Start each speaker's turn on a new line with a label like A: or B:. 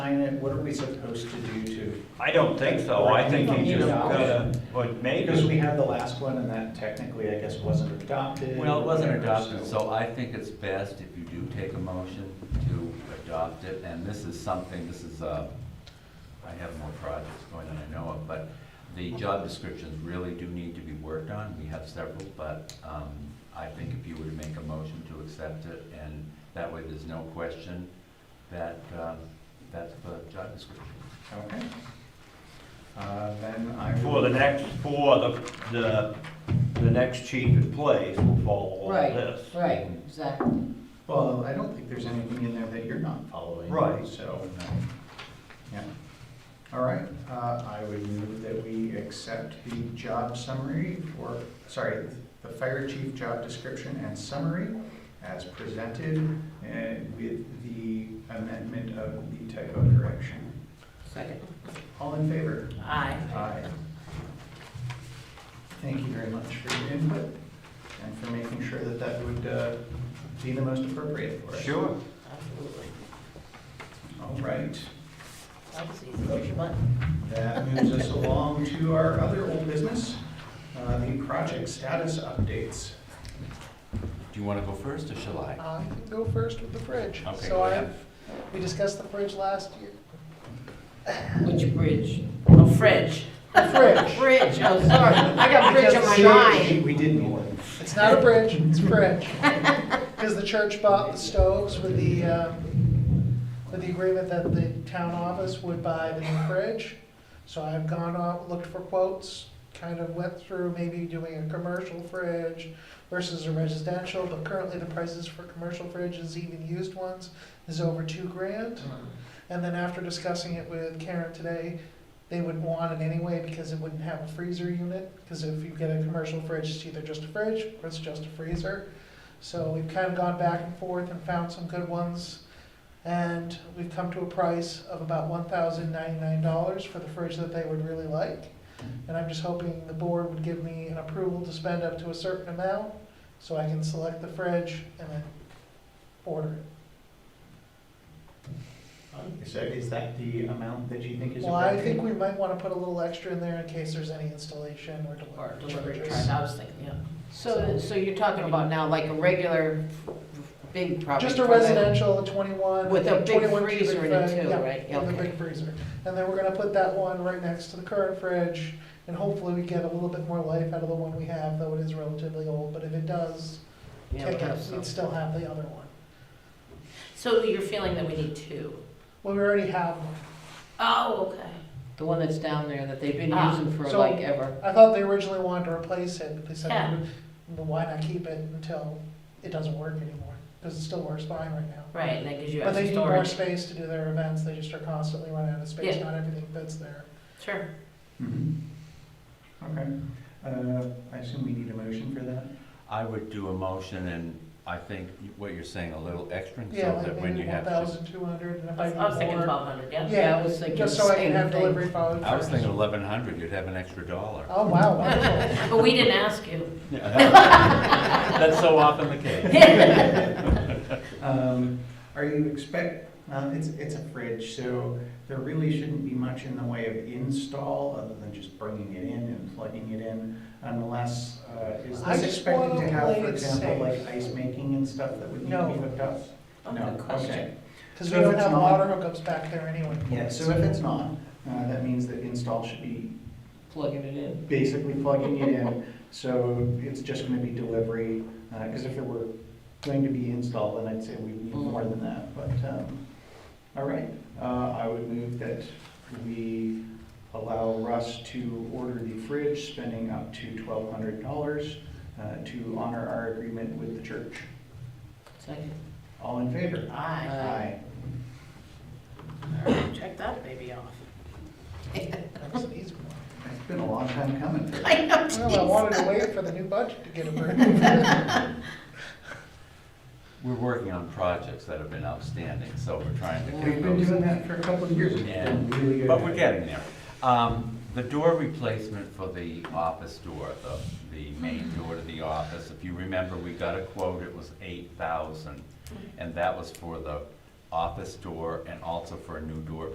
A: sign it, what are we supposed to do to?
B: I don't think so, I think you just gotta, but
A: Because we
B: maybe,
A: had the last one and that technically, I guess, wasn't adopted.
C: Well, it
A: or
C: wasn't
A: whatever,
C: adopted, so I think it's best if you do take a motion to adopt it, and this is something, this is, uh, I have more projects going than I know of, but the job descriptions really do need to be worked on, we have several, but, um, I think if you were to make a motion to accept it, and that way there's no question that, um, that's the job description.
A: Okay. Uh, Then I.
B: for the
A: will-
B: next, for the, the, the next chief in place will follow all
D: Right.
B: this.
D: Right, exactly.
A: Well, I don't think there's anything in there that you're not following.
B: Right.
A: So, yeah. All right, uh, I would move that we accept the job summary for, sorry, the fire chief job description and summary as presented and with the amendment of the typo correction.
D: Second.
A: All in favor?
D: Aye.
A: Aye. Thank you very much for your input and for making sure that that would uh, be the most appropriate for us.
B: Sure.
D: Absolutely.
A: All right,
D: That was easy. There's your button.
A: that moves us along to our other old business, uh, the project status updates.
C: Do you wanna go first, or shall I?
E: I can go first with the fridge.
C: Okay,
E: So
C: go
E: I,
C: ahead.
E: we discussed the fridge last year.
D: Which bridge? Oh, fridge.
E: Fridge.
D: Bridge, oh, sorry. I got bridge on
A: See,
D: my mind.
A: We did one.
E: It's not a bridge, it's fridge. Because the church bought the stoves with the, um, with the agreement that the town office would buy the new fridge. So I've gone out, looked for quotes, kind of went through maybe doing a commercial fridge versus a residential, but currently the prices for commercial fridges, even used ones, is over two grand. And then after discussing it with Karen today, they wouldn't want it anyway because it wouldn't have a freezer unit. Because if you get a commercial fridge, it's either just a fridge or it's just a freezer. So we've kind of gone back and forth and found some good ones. And we've come to a price of about one thousand ninety-nine dollars for the fridge that they would really like. And I'm just hoping the board would give me an approval to spend up to a certain amount so I can select the fridge and then order it.
A: So is that the amount that you think is
E: Well, I
A: appropriate?
E: think we might want to put a little extra in there in case there's any installation or
D: Or
E: delivery
D: delivery
E: charges.
D: truck, I was thinking, yeah. So, so you're talking about now like a regular big property?
E: Just a residential, twenty-one.
D: With a big
E: 21 cubic
D: freezer in it
E: foot,
D: too,
E: yeah,
D: right?
E: With a
D: Okay.
E: big freezer. And then we're gonna put that one right next to the current fridge, and hefully we get a little bit more life out of the one we have, though it is relatively old, but if it does,
D: Yeah,
E: kick
D: okay,
E: it,
D: so-
E: we'd still have the other one.
F: So you're feeling that we need two?
E: Well, we already have one.
F: Oh, okay.
D: The one that's down there that they've been
F: Ah,
D: using for
E: so-
D: like ever.
E: I thought they originally wanted to replace it, but they said,
F: Yeah.
E: well, why not keep it until it doesn't work anymore? Because it still works fine right now.
F: Right, and that gives you
E: But
F: extra
E: they need more
F: storage.
E: space to do their events, they just are constantly running out of space,
F: Yeah.
E: not everything fits there.
F: Sure.
A: Mhm. Mm-hmm. Okay, Uh, I assume we need a motion for that?
C: I would do a motion, and I think what you're saying, a little extra, so
E: Yeah, like
C: that when
E: maybe
C: you
E: one
C: have.
E: thousand two hundred, and if I
F: I was
E: need
F: thinking
E: more.
F: twelve hundred, yeah.
D: Yeah, I
E: Yeah,
D: was thinking
E: just so I
D: same
E: can have
D: thing.
E: delivery followed
C: I was
E: first.
C: thinking eleven hundred, you'd have an extra dollar.
E: Oh, wow, wonderful.
F: But we didn't ask you.
C: That's so often the case.
A: Um, Are you expect, um, it's, it's a fridge, so there really shouldn't be much in the way of install other than just bringing it in and plugging it in unless, uh, is
E: I
A: this
E: just
A: expected to
E: wanna
A: have,
E: play
A: for
E: it
A: example,
E: safe.
A: like ice making and stuff that would need to
E: No.
A: be hooked up?
F: Oh,
A: No,
F: good question.
A: okay.
E: Because
A: So
E: we
A: if
E: don't
A: it's
E: have
A: not-
E: water hookups back there anyway.
A: Yeah, so if it's not, uh, that means that install should be
D: Plugging it in.
A: basically plugging it in. So it's just gonna be delivery, uh 'cause cause if it were going to be installed, then I'd say we need more than that, but, um, all right. Uh, I would move that we allow Russ to order the fridge, spending up to twelve hundred dollars, uh, to honor our agreement with the church.
D: Second.
A: All in favor?
D: Aye.
F: Aye.
A: All right.
F: Check that baby off.
E: That was an easy one.
A: It's been a long time coming.
F: I know,
E: Well, I
F: geez.
E: wanted to wait for the new budget to get approved.
C: We're working on projects that have been outstanding, so we're trying to.
A: We've
C: get
A: been
C: those.
A: doing that for a couple of years. It's been really
C: Yeah,
A: good.
C: but we're getting there. Um, the door replacement for the office door, the, the main door to the office, if you remember, we got a quote, it was eight thousand. And that was for the office door and also for a new door